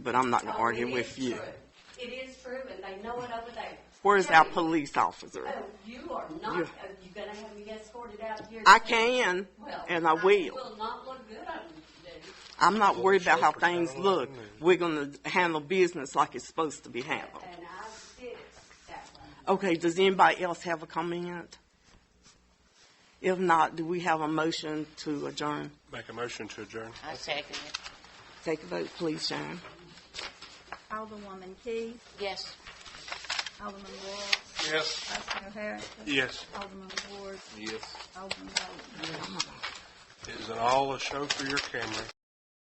but I'm not going to argue It with is you. true. It is true, and they know it over there. Where's our police officer? Oh, you are not, You- oh, you gonna have me escorted out here? I can, and I Well, will. will not look good on you, dude. I'm not worried about how things look. We're going to handle business like it's supposed to be handled. and I did that one. Okay, does anybody else have a comment? If not, do we have a motion to adjourn? Make a motion to adjourn. I second it. Take a vote, please, Sharon. Alderwoman Key, Yes. Alderman Wall, Yes. Vice Mayor Harrison, Yes. Alderman Ward, Yes. Alderman Bowman. Is it all a show for your camera?